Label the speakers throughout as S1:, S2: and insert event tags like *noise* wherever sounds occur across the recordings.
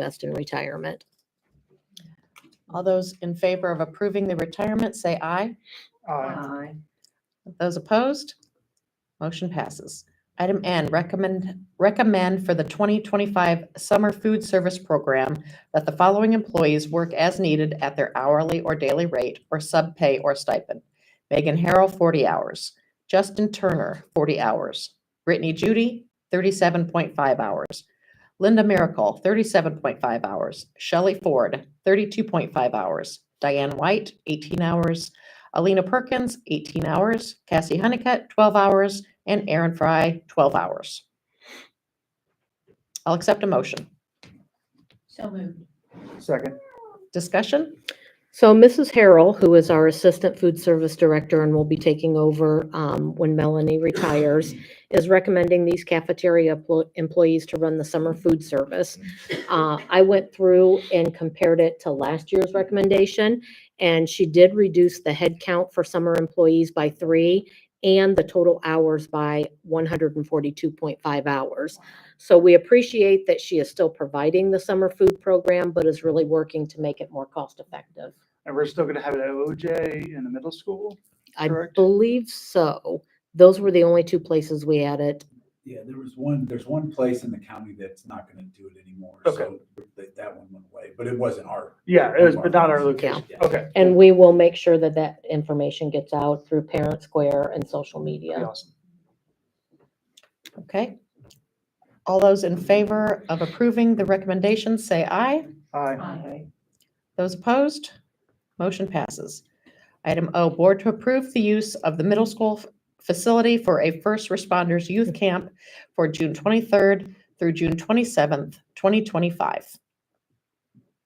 S1: invest in retirement.
S2: All those in favor of approving the retirement, say aye.
S3: Aye.
S2: Those opposed? Motion passes. Item N, recommend, recommend for the 2025 Summer Food Service Program that the following employees work as needed at their hourly or daily rate or subpay or stipend. Megan Harrell, 40 hours. Justin Turner, 40 hours. Brittany Judy, 37.5 hours. Linda Miracle, 37.5 hours. Shelley Ford, 32.5 hours. Diane White, 18 hours. Alina Perkins, 18 hours, Cassie Honeycutt, 12 hours, and Aaron Fry, 12 hours. I'll accept a motion.
S4: So moved.
S3: Second.
S2: Discussion?
S1: So Mrs. Harrell, who is our Assistant Food Service Director and will be taking over um, when Melanie retires, is recommending these cafeteria plo- employees to run the summer food service. Uh, I went through and compared it to last year's recommendation, and she did reduce the head count for summer employees by three and the total hours by 142.5 hours. So we appreciate that she is still providing the summer food program, but is really working to make it more cost-effective.
S3: And we're still gonna have it at OJ in the middle school?
S1: I
S3: correct?
S1: believe so. Those were the only two places we had it.
S5: Yeah, there was one, there's one place in the county that's not gonna do it anymore.
S3: Okay.
S5: so That, that one went away, but it wasn't our.
S3: Yeah, it was, but not our
S1: Yeah.
S3: location. Okay.
S1: And we will make sure that that information gets out through Parent Square and social
S3: That'd be
S1: media.
S3: awesome.
S2: Okay. All those in favor of approving the recommendation, say aye.
S3: Aye.
S4: Aye.
S2: Those opposed? Motion passes. Item O, Board to approve the use of the middle school f- facility for a first responders youth camp for June 23rd through June 27th, 2025.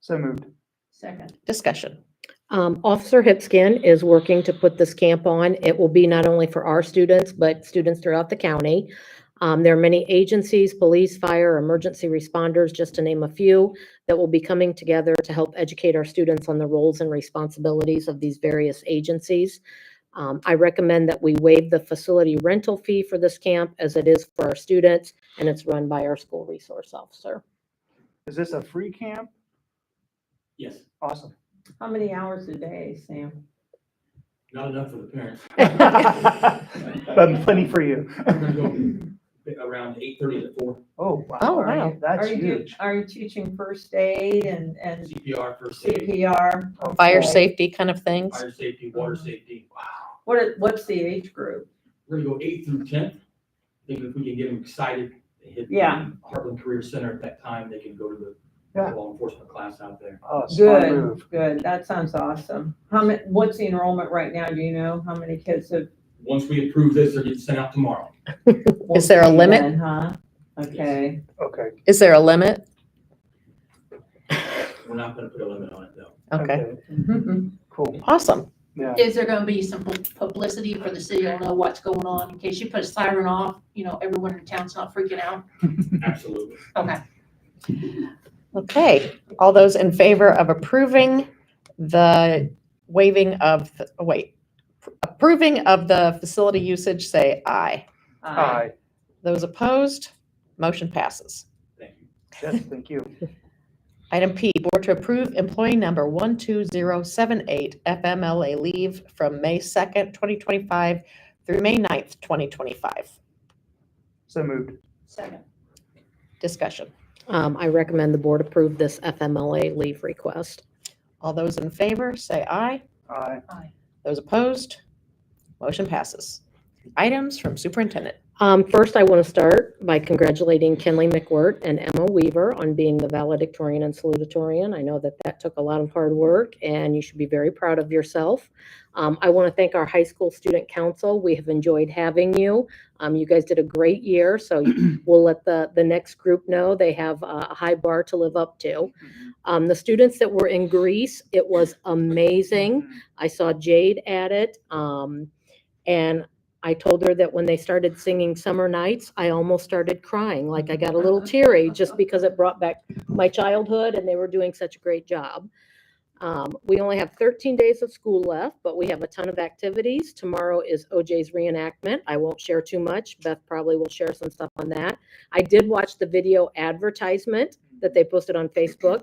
S3: So moved.
S4: Second.
S2: Discussion?
S1: Um, Officer Hipskin is working to put this camp on. It will be not only for our students, but students throughout the county. Um, there are many agencies, police, fire, emergency responders, just to name a few, that will be coming together to help educate our students on the roles and responsibilities of these various agencies. Um, I recommend that we waive the facility rental fee for this camp as it is for our students and it's run by our school resource officer.
S3: Is this a free camp?
S6: Yes,
S3: Awesome. *laughs*
S4: How many hours a day, Sam?
S6: not enough for the parents.
S3: But plenty for you.
S6: I'm gonna go around eight thirty to four,
S3: Oh, wow.
S2: Oh,
S4: Are you-
S2: wow.
S3: That's
S4: Are you, do-
S3: huge.
S4: are you teaching first aid and, and
S6: CPR, first aid,
S4: CPR?
S3: Oh,
S2: fire
S4: Okay.
S2: safety kind of things.
S6: fire safety, water safety. Wow.
S4: What, is- what's the age group?
S6: We're gonna go eight through ten, thinking if we can get them excited, they hit.
S4: Yeah.
S6: Heartland Career Center at that time, they can go to the
S3: Yeah.
S6: law enforcement class out there.
S3: Oh, smart
S4: Good,
S3: move.
S4: good. That sounds awesome. How many, what's the enrollment right now? Do you know how many kids have?
S6: Once we approve this, they're getting sent out tomorrow.
S2: Is there a
S4: Well,
S2: limit?
S4: then, Huh? Okay.
S3: Okay.
S2: Is there a limit?
S6: We're not gonna put a limit on it though.
S2: Okay,
S3: Cool.
S2: awesome.
S3: Yeah.
S7: Is there gonna be some pu- publicity for the city will know what's going on in case you put a siren off, you know, everyone in town's not freaking out?
S6: Absolutely.
S7: Okay.
S2: Okay, all those in favor of approving the waiving of, the- oh, wait, approving of the facility usage, say aye.
S3: Aye.
S2: Those opposed, motion passes.
S6: Thank you.
S3: Yes, thank you.
S2: Item P, board to approve employee number 12078 FMLA leave from May 2nd, 2025 through May 9th, 2025.
S3: So moved.
S7: Second.
S2: Discussion.
S1: Um, I recommend the board approve this FMLA leave request.
S2: All those in favor, say aye.
S3: Aye.
S2: Those opposed? Motion passes. Items from superintendent.
S1: Um, first, I want to start by congratulating Kenley McWirt and Emma Weaver on being the valedictorian and salutatorian. I know that that took a lot of hard work and you should be very proud of yourself. Um, I want to thank our high school student council. We have enjoyed having you. Um, you guys did a great year, so we'll let the, the next group know they have a a high bar to live up to. Um, the students that were in Greece, it was amazing. I saw Jade at it. Um, and I told her that when they started singing Summer Nights, I almost started crying. Like I got a little teary just because it brought back my childhood and they were doing such a great job. Um, we only have 13 days of school left, but we have a ton of activities. Tomorrow is OJ's reenactment. I won't share too much. Beth probably will share some stuff on that. I did watch the video advertisement that they posted on Facebook.